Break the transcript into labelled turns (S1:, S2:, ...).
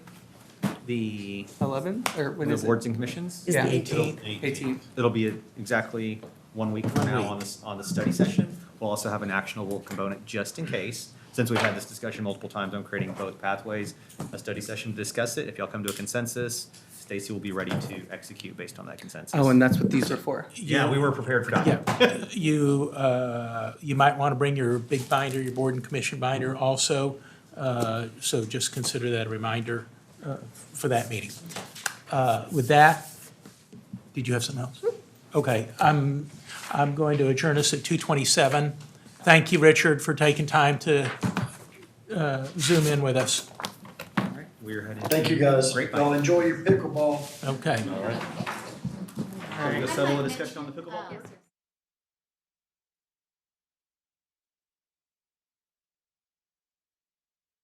S1: the
S2: 11, or when
S1: the
S2: is it?
S1: boards and commissions.
S3: Is the
S2: Yeah.
S3: 18th?
S2: 18th.
S1: It'll be exactly one week from
S3: One
S1: now
S3: week.
S1: on this, on the study session. We'll also have an actionable component just in case. Since we've had this discussion multiple times on creating both pathways, a study session to discuss it. If y'all come to a consensus, Stacy will be ready to execute based on that consensus.
S2: Oh, and that's what these are for.
S1: Yeah, we were prepared for that.
S3: Yeah, you, uh, you might want to bring your big binder, your board and commission binder also, uh, so just consider that a reminder uh, for that meeting. Uh, With that, did you have something else? Okay, I'm, I'm going to adjourn us at 2:27. Thank you, Richard, for taking time to uh, zoom in with us.
S1: We're heading.
S4: Thank you, guys.
S1: Great.
S4: Y'all enjoy your pickleball.
S3: Okay.
S1: All right. There you go, settle the discussion on the pickleball court.